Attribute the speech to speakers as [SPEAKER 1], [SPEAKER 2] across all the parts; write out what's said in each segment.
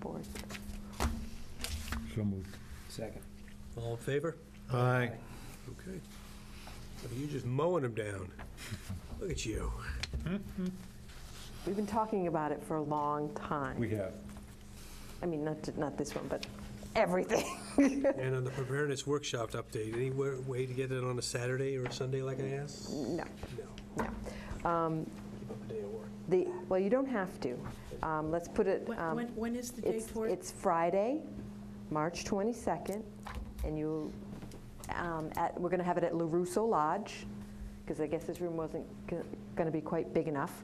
[SPEAKER 1] forward.
[SPEAKER 2] So moved.
[SPEAKER 3] Second.
[SPEAKER 4] All in favor?
[SPEAKER 2] Aye.
[SPEAKER 4] Okay. Well, You're just mowing them down. Look at you.
[SPEAKER 1] We've been talking about it for a long time.
[SPEAKER 2] We have.
[SPEAKER 1] I mean, not, to- not this one, but everything.
[SPEAKER 4] And on the preparedness workshop update, any wa- way to get it on a Saturday or a Sunday like I asked?
[SPEAKER 1] No,
[SPEAKER 4] No.
[SPEAKER 1] Mm. no. Um,
[SPEAKER 4] Keep up a day of work.
[SPEAKER 1] The, well, you don't have to. Um, Let's put it,
[SPEAKER 5] When-
[SPEAKER 1] um,
[SPEAKER 5] When, when is the date
[SPEAKER 1] it's,
[SPEAKER 5] for it?
[SPEAKER 1] it's Friday, March 22nd, and you, um, at, we're going to have it at LaRusso Lodge, because I guess this room wasn't going to be quite big enough.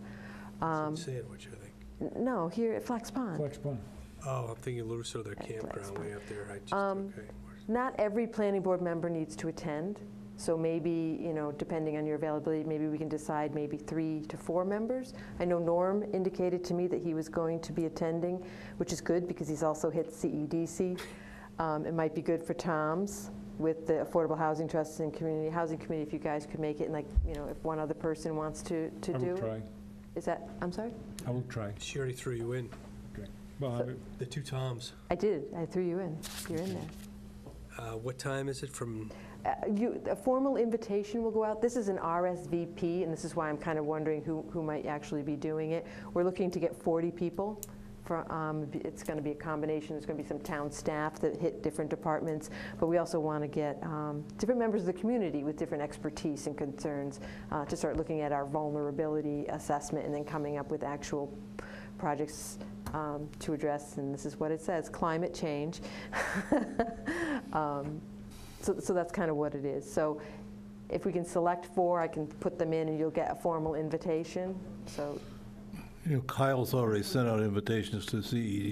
[SPEAKER 1] Um,
[SPEAKER 4] Sandwich, I think.
[SPEAKER 1] n- No, here at Flax Pond.
[SPEAKER 2] Flex one.
[SPEAKER 4] Oh, I'm thinking Luso, their
[SPEAKER 1] Right, well, that's
[SPEAKER 4] campground way up there. I just,
[SPEAKER 1] Um,
[SPEAKER 4] okay.
[SPEAKER 1] Not every planning board member needs to attend, so maybe, you know, depending on your availability, maybe we can decide maybe three to four members. I know Norm indicated to me that he was going to be attending, which is good because he's also hit CEDC. Um, It might be good for Tom's with the Affordable Housing Trust and Community Housing Committee, if you guys could make it, and like, you know, if one other person wants to, to
[SPEAKER 2] I
[SPEAKER 1] do.
[SPEAKER 2] will
[SPEAKER 1] it.
[SPEAKER 2] try.
[SPEAKER 1] Is that, I'm sorry?
[SPEAKER 2] I will try.
[SPEAKER 4] She already threw you in.
[SPEAKER 2] Okay. Well, I-
[SPEAKER 4] The two Toms.
[SPEAKER 1] I did, I threw you in, you're in there.
[SPEAKER 4] Uh, What time is it from,
[SPEAKER 1] Uh, You, a formal invitation will go out. This is an RSVP, and this is why I'm kind of wondering who, who might actually be doing it. We're looking to get 40 people. For, um, b- it's going to be a combination. There's going to be some town staff that hit different departments, but we also want to get um, different members of the community with different expertise and concerns uh, to start looking at our vulnerability assessment and then coming up with actual p- projects um, to address. And this is what it says: climate change. um, so, so that's kind of what it is. So if we can select four, I can put them in and you'll get a formal invitation. So,
[SPEAKER 6] You know, Kyle's already sent out invitations to E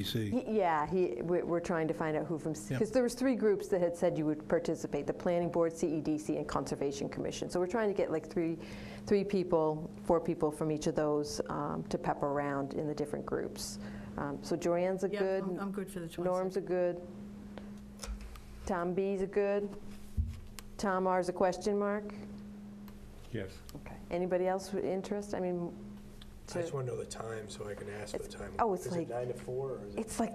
[SPEAKER 6] CEDC.
[SPEAKER 1] y- yeah, he, we're, we're trying to find out who from,
[SPEAKER 6] Yeah.
[SPEAKER 1] because there was three groups that had said you would participate, the Planning Board, CEDC, and Conservation Commission. So we're trying to get like three, three people, four people from each of those um, to pepper around in the different groups. Um, So Joanne's a
[SPEAKER 5] Yeah,
[SPEAKER 1] good,
[SPEAKER 5] I'm- I'm good for the 22nd.
[SPEAKER 1] Norm's a good, Tom B's a good, Tom R's a question mark.
[SPEAKER 2] yes.
[SPEAKER 1] Okay. Anybody else with interest? I mean,
[SPEAKER 4] I just
[SPEAKER 1] to-
[SPEAKER 4] want to know the time so I can ask for the time.
[SPEAKER 1] oh, it's
[SPEAKER 4] Is
[SPEAKER 1] like-
[SPEAKER 4] it nine to four or is it?
[SPEAKER 1] it's like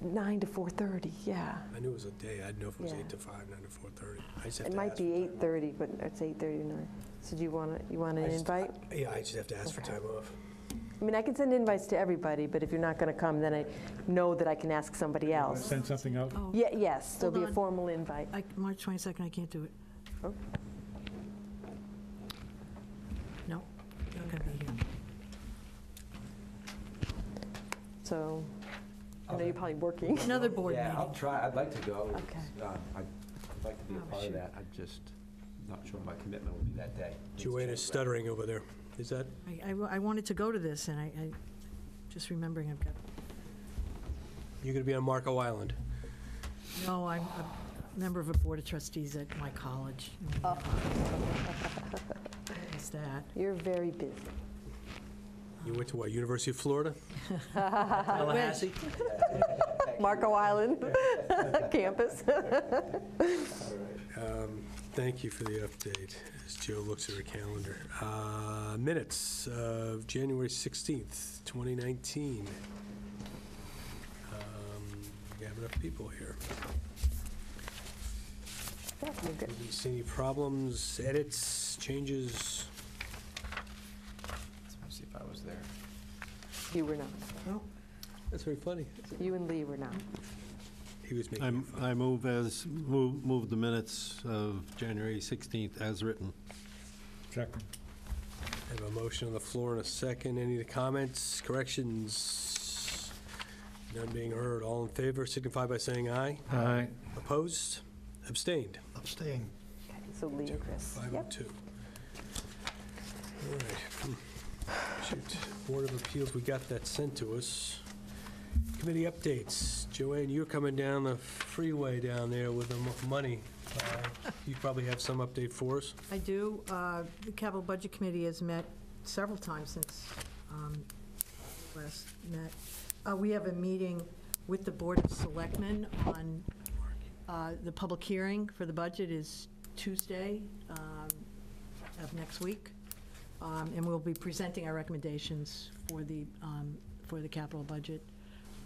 [SPEAKER 1] nine to four thirty, yeah.
[SPEAKER 4] I knew it was a day. I'd know if it was
[SPEAKER 1] Yeah.
[SPEAKER 4] eight to five, nine to four thirty. I just have
[SPEAKER 1] It
[SPEAKER 4] to
[SPEAKER 1] might
[SPEAKER 4] ask for
[SPEAKER 1] be
[SPEAKER 4] time
[SPEAKER 1] eight
[SPEAKER 4] off.
[SPEAKER 1] thirty, but it's eight thirty to nine. So do you want to, you want
[SPEAKER 4] I
[SPEAKER 1] an
[SPEAKER 4] just-
[SPEAKER 1] invite?
[SPEAKER 4] Yeah, I just have to ask for
[SPEAKER 1] Okay.
[SPEAKER 4] time off.
[SPEAKER 1] I mean, I can send invites to everybody, but if you're not going to come, then I know that I can ask somebody else.
[SPEAKER 2] Send something out.
[SPEAKER 5] Oh,
[SPEAKER 1] Yeah, yes, there'll be
[SPEAKER 5] Hold
[SPEAKER 1] a
[SPEAKER 5] on.
[SPEAKER 1] formal invite.
[SPEAKER 5] I- March 22nd, I can't do it.
[SPEAKER 1] Oh.
[SPEAKER 5] No, I'm going to be here.
[SPEAKER 1] So, I know you're probably working.
[SPEAKER 5] Another board
[SPEAKER 3] Yeah, I'll
[SPEAKER 5] meeting.
[SPEAKER 3] try, I'd like to go.
[SPEAKER 1] Okay.
[SPEAKER 3] It's, um, I'd I'd like to be a
[SPEAKER 5] Oh,
[SPEAKER 3] part
[SPEAKER 5] shoot.
[SPEAKER 3] of that, I'm just not sure my commitment will be that day. It's
[SPEAKER 4] Joanna's
[SPEAKER 3] changed, right?
[SPEAKER 4] stuttering over there. Is that,
[SPEAKER 5] I- I, wa- I wanted to go to this, and I, I, just remembering I've got,
[SPEAKER 4] you're going to be on Marco Island?
[SPEAKER 5] no, I'm a member of a board of trustees at my college.
[SPEAKER 1] Oh.
[SPEAKER 5] Is that?
[SPEAKER 1] You're very busy.
[SPEAKER 4] You went to what, University of Florida?
[SPEAKER 5] Tallahassee?
[SPEAKER 1] Marco Island campus.
[SPEAKER 4] Um, Thank you for the update, as Joe looks at her calendar. Uh, Minutes of January 16th, 2019. Um, We have enough people here.
[SPEAKER 1] Yeah, we're good.
[SPEAKER 4] Anybody See any problems, edits, changes?
[SPEAKER 3] Let's see if I was there.
[SPEAKER 1] You were not.
[SPEAKER 4] That's very funny.
[SPEAKER 1] You and Lee were not.
[SPEAKER 4] He was making it
[SPEAKER 6] I'm-
[SPEAKER 4] fun.
[SPEAKER 6] I move as, move move the minutes of January 16th as written.
[SPEAKER 2] Second.
[SPEAKER 4] I have a motion on the floor and a second. Any comments, corrections? None being heard. All in favor signify by saying aye.
[SPEAKER 2] Aye.
[SPEAKER 4] Opposed? Abstained?
[SPEAKER 6] Abstain.
[SPEAKER 1] Okay, So Lee and Chris.
[SPEAKER 4] Five oh
[SPEAKER 1] Yep.
[SPEAKER 4] two. All right. Hmm. Shoot. Board of Appeals, we got that sent to us. Committee updates. Joanne, you're coming down the freeway down there with the mo- money. Uh, You probably have some update for us.
[SPEAKER 5] I do. Uh, The Capital Budget Committee has met several times since um, last met. Uh, We have a meeting with the Board of Selectmen on, uh, the public hearing for the budget is Tuesday um, of next week, Um, and we'll be presenting our recommendations for the, um, for the capital budget.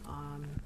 [SPEAKER 5] Um,